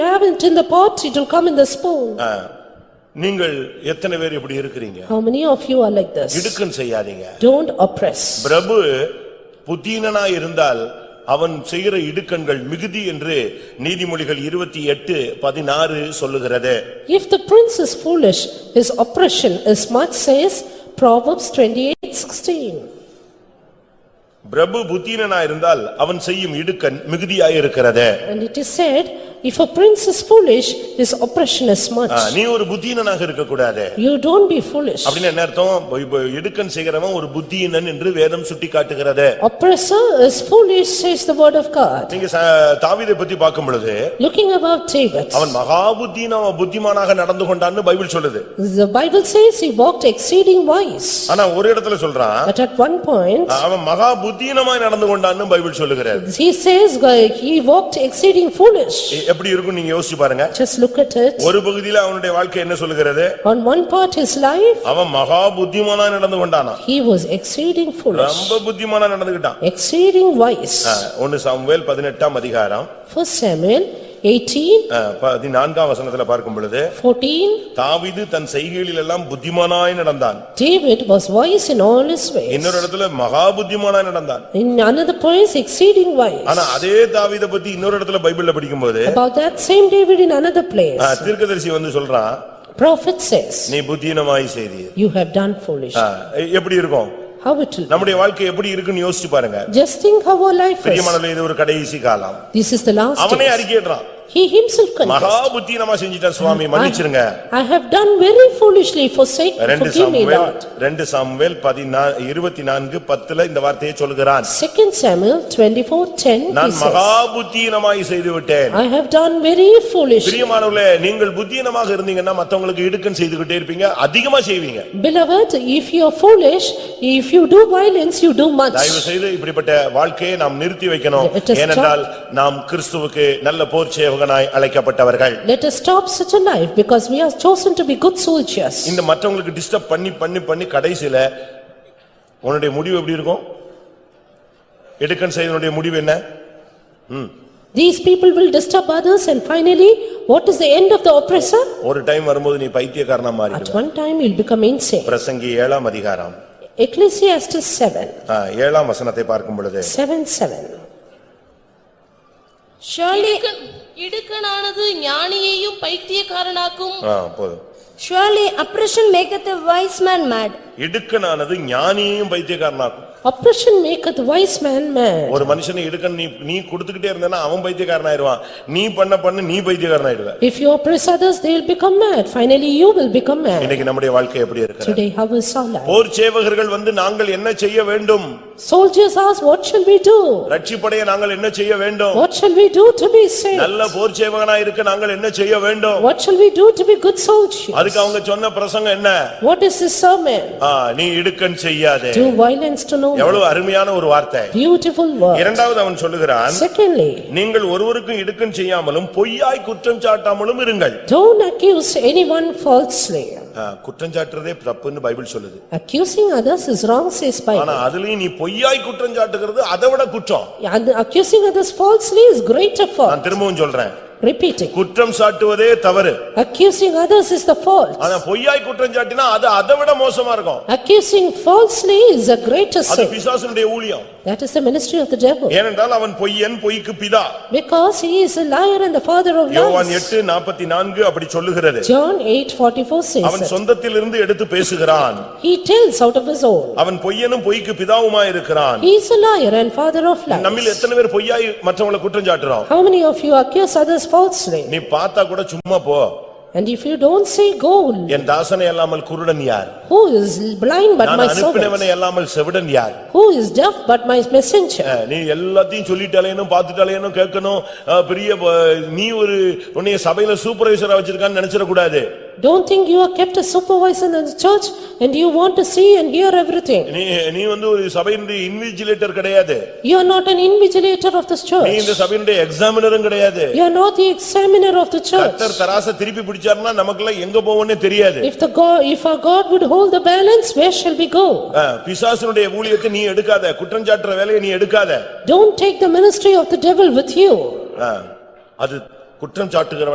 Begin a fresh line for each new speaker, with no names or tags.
it in the pot, it will come in the spoon.
ஆ. நீங்கள் எத்தனை பேர் இப்படி இருக்கிறீங்க
How many of you are like this?
இடுக்கன் செய்யாதீங்க
Don't oppress.
பிரபு புத்தீனனா இருந்தால் அவன் செய்கிற இடுக்கண்கள் மிகுதி என்று நீதிமொழிகள் இருபத்தி எட்டு பதினாறு சொல்லுகிறது
If the prince is foolish, his oppression is much says Proverbs twenty-eight sixteen.
பிரபு புத்தீனனா இருந்தால் அவன் செய்யும் இடுக்கண் மிகுதியாய் இருக்கிறது
And it is said, if a prince is foolish, his oppression is
ah,
much.
நீ ஒரு புத்தீனனாக இருக்கக்கூடாது
You don't be foolish.
அப்படின்னு என்ன அர்த்தம் இப்ப- இப்ப இடுக்கண் செய்கிறவன் ஒரு புத்தியினன் என்று வேதம் சுட்டி காட்டுகிறது
Oppressor is foolish, says the word of God.
நீங்க ச- தாவீதை பத்தி பார்க்கும் பொழுது
Looking about David,
அவன் மகா புத்தின புத்திமானாக நடந்து கொண்டான்னு பைபிள் சொல்லுது
the Bible says he walked exceeding wise.
ஆனா ஒரு இடத்துல சொல்றான்
But at one point,
அவன் மகா புத்தீனமாய் நடந்து கொண்டான்னு பைபிள் சொல்லுகிறது
he says uh, he walked exceeding foolish.
எ- எப்படி இருக்கும் நீங்க யோசிச்சு பாருங்க
Just look at it.
ஒரு பகுதியில அவனுடைய வாழ்க்கை என்ன சொல்லுகிறது
On one part his life,
அவன் மகா புத்திமானா நடந்து கொண்டானா
he was exceeding foolish,
ரொம்ப புத்திமானா நடந்துகிட்டான்
exceeding wise.
ஆ, ஒன்னு சாமுவேல் பதினெட்டாம் அதிகாரம்
First Samuel eighteen,
ஆ, பதினான்காம் வசனத்துல பார்க்கும் பொழுது
fourteen,
தாவீது தன் செய்கைகளில் எல்லாம் புத்திமானாய் நடந்தான்
David was wise in all his ways.
இன்னொரு இடத்துல மகா புத்திமானாய் நடந்தான்
In another place exceeding wise.
ஆனா அதே தாவீதை பத்தி இன்னொரு இடத்துல பைபிள்ல படிக்கும்போது
About that same David in another place,
ஆ, தீர்க்கதரிசி வந்து சொல்றான்
prophet says,
நீ புத்தீனமாய் செய்தி
you have done foolish.
Ah. எப்படி இருக்கும்
How it will,
நம்முடைய வாழ்க்கை எப்படி இருக்குன்னு யோசிச்சு பாருங்க
just think how our life is.
பிரியமானவர்களே இது ஒரு கடைசி காலம்
This is the last
அவனே
days.
அறிக்கையிடுறான்
He himself
மகா
confessed,
புத்தீனமா செஞ்சிட்டேன் சுவாமி மன்னிச்சிருங்க
I have done very foolishly forsake,
ரெண்டு
forgive me
சாமுவேல்
Lord.
ரெண்டு சாமுவேல் பதினா இருபத்தி நான்கு பத்துல இந்த வார்த்தையை சொல்கிறான்
Second Samuel twenty-four ten, he
நான்
says,
மகா புத்தீனமாய் செய்து விட்டேன்
I have done very foolish.
பிரியமானவர்களே நீங்கள் புத்தீனமாக இருந்தீங்கன்னா மத்தவங்களுக்கு இடுக்கன் செய்துகிட்டே இருப்பீங்க அதிகமா செய்வீங்க
Beloved, if you are foolish, if you do violence, you do much.
தயவு செய்து இப்படிப்பட்ட வாழ்க்கையை நாம் நிறுத்தி வைக்கணும்
Let us stop.
ஏனென்றால் நாம் கிறிஸ்துவுக்கு நல்ல போர் சேவகனாய் அழைக்கப்பட்டவர்கள்
Let us stop such a life because we are chosen to be good soldiers.
இந்த மற்றவங்களுக்கு டிஸ்டர்ப் பண்ணி பண்ணி பண்ணி கடைசில உன்னுடைய முடிவு எப்படி இருக்கும் எடுக்கன் செய்தனுடைய முடிவு என்ன
These people will disturb others and finally, what is the end of the oppressor?
ஒரு டைம் வரும்போது நீ பைத்தியக்காரனா
At
மாறிடுவ
one time, you'll become insane.
பிரசங்கி ஏழாம் அதிகாரம்
Ecclesiastes seven,
ஆ, ஏழாம் வசனத்தை பார்க்கும் பொழுது
seven, seven.
Surely இடுக்கணானது ஞானியையும் பைத்தியக்காரனாக்கும்
ஆ, போதும்
Surely oppression maketh a wise man mad.
இடுக்கனானது ஞானியையும் பைத்தியக்காரனாக்கும்
Oppression maketh wise man mad.
ஒரு மனுஷனை இடுக்கன் நீ நீ கொடுத்துக்கிட்டே இருந்தேன்னா அவன் பைத்தியக்காரனாயிருவான் நீ பண்ண பண்ண நீ பைத்தியக்காரனாயிடுவ
If you oppress others, they will become mad. Finally, you will become mad.
இன்னைக்கு நம்முடைய வாழ்க்கை எப்படி இருக்கு
Today, how is our life?
போர் சேவகர்கள் வந்து நாங்கள் என்ன செய்ய வேண்டும்
Soldiers ask, what shall we do?
ரட்சிப்படைய நாங்கள் என்ன செய்ய வேண்டும்
What shall we do to be saved?
நல்ல போர் சேவகனா இருக்க நாங்கள் என்ன செய்ய வேண்டும்
What shall we do to be good soldiers?
அதுக்கு அவங்க சொன்ன பிரசங்கம் என்ன
What is this sermon?
ஆ, நீ இடுக்கன் செய்யாதே
Do violence to no man.
எவ்வளவு அருமையான ஒரு வார்த்தை
Beautiful word.
இரண்டாவது அவன் சொல்லுகிறான்
Secondly,
நீங்கள் ஒருவருக்கும் இடுக்கன் செய்யாமலும் பொய்யாய் குற்றம் சாட்டாமலும் இருங்கள்
don't accuse anyone falsely.
ஆ, குற்றம் சாட்டுறதே தப்புன்னு பைபிள் சொல்லுது
Accusing others is wrong says
ஆனா
Bible.
அதுலயும் நீ பொய்யாய் குற்றம் சாட்டுகிறது அதை விட குற்றம்
And Accusing others falsely is greater fault.
நான் திரும்பவும் சொல்றேன்
Repeating,
குற்றம் சாட்டுவதே தவறு
accusing others is the fault.
ஆனா பொய்யாய் குற்றம் சாட்டினா அது அதை விட மோசமா இருக்கும்
Accusing falsely is a greater
அது
sin.
பிசாசனுடைய ஊழியம்
That is the ministry of the devil.
ஏனென்றால் அவன் பொய்யன் பொய்க்கு பிதா
Because he is a liar and the father of
யோவான்
lies.
எட்டு நாற்பத்தி நான்கு அப்படி சொல்லுகிறது
John eight forty-four says
அவன்
it.
சொந்தத்திலிருந்து எடுத்து பேசுகிறான்
He tells out of his own.
அவன் பொய்யனும் பொய்க்கு பிதாவுமா இருக்கிறான்
He is a liar and father of lies.
நம்மில் எத்தனை பேர் பொய்யாய் மற்றவங்களை குற்றம் சாட்டுறோம்
How many of you accuse others falsely?
நீ பார்த்தா கூட சும்மா போ
And if you don't say, "Go,"
என் தாசனை அல்லாமல் குருடன் யார்
who is blind but
நான்
my servant?
அனுப்பினவனை அல்லாமல் செவிடன் யார்
Who is deaf but my messenger?
அஹ், நீ எல்லாத்தையும் சொல்லிட்டாலேனும் பார்த்துட்டாலேனும் கேட்கணும் அஹ், பெரிய ப- நீ ஒரு உன்னைய சபையில சூப்பர்வைசரா வச்சிருக்கான்னு நினைச்சிடக்கூடாது
Don't think you are kept a supervisor in the church and you want to see and hear everything.
நீ நீ வந்து ஒரு சபையினுடைய இன்விஜிலேட்டர் கிடையாது
You are not an invigilator of this
நீ
church.
இந்த சபையினுடைய எக்ஸாமினரும் கிடையாது
You are not the examiner of the church.
கத்தர் தராச திருப்பி பிடிச்சாருன்னா நமக்கெல்லாம் எங்க போவோம்னே தெரியாது
If the God, if our God would hold the balance, where shall we go?
அஹ், பிசாசனுடைய ஊழியத்தை நீ எடுக்காத குற்றஞ்சாட்டுற வேலையை நீ எடுக்காத
Don't take the ministry of the devil with you.
அஹ், அது குற்றம் சாட்டுகிற